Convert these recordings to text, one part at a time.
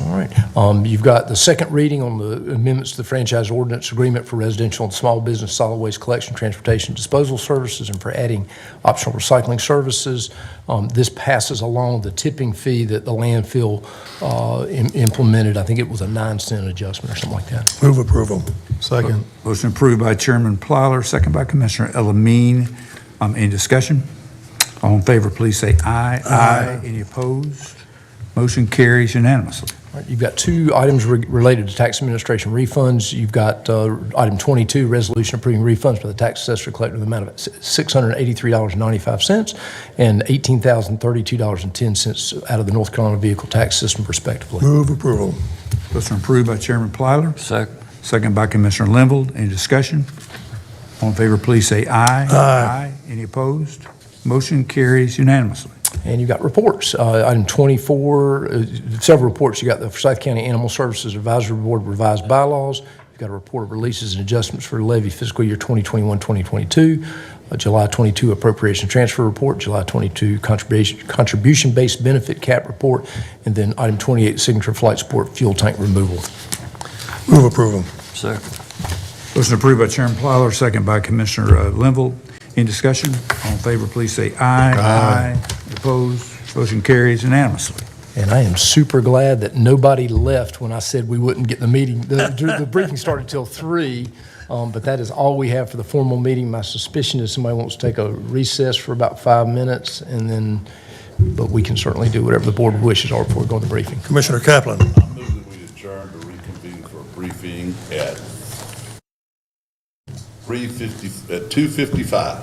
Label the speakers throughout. Speaker 1: All right. Um, You've got the second reading on the amendments to the franchise ordinance agreement for residential and small business solid waste collection, transportation, disposal services, and for adding optional recycling services. Um, This passes along the tipping fee that the landfill uh, im- implemented. I think it was a nine cent adjustment or something like that.
Speaker 2: Move approval. Second.
Speaker 3: Motion approved by Chairman Plyler, second by Commissioner Elamine. Um, Any discussion? All in favor, please say aye. Aye. Any opposed? Motion carries unanimously.
Speaker 1: All right, You've got two items re- related to tax administration refunds. You've got uh, item 22, resolution approving refunds for the tax assessor collected in the amount of $683.95 and $18,032.10 out of the North Carolina Vehicle Tax System respectively.
Speaker 2: Move approval.
Speaker 3: Motion approved by Chairman Plyler. Second. Second by Commissioner Linville. Any discussion? All in favor, please say aye. Aye. Any opposed? Motion carries unanimously.
Speaker 1: And you've got reports. Uh, Item 24, uh, several reports. you got the Forsyth County Animal Services Advisory Board revised bylaws. You've got a report of releases and adjustments for levy fiscal year 2021, 2022, a Uh, July 22 appropriation transfer report, July 22 contribution- contribution-based benefit cap report, and then item 28, signature flight support fuel tank removal.
Speaker 2: Move approval.
Speaker 3: Motion approved by Chairman Plyler, second by Commissioner uh, Linville. In discussion? All in favor, please say aye. Aye. Opposed? Motion carries unanimously.
Speaker 1: And I am super glad that nobody left when I said we wouldn't get the meeting. The, the briefing started till three, um, but that is all we have for the formal meeting. My suspicion is somebody wants to take a recess for about five minutes and then, but we can certainly do whatever the board wishes or before we go to the briefing.
Speaker 2: Commissioner Kaplan.
Speaker 4: I move that we adjourn to reconvene for a briefing at three fifty, at two fifty-five.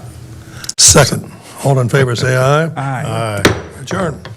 Speaker 2: Second. All in favor, say aye.
Speaker 3: Aye.
Speaker 2: Aye. Adjourn.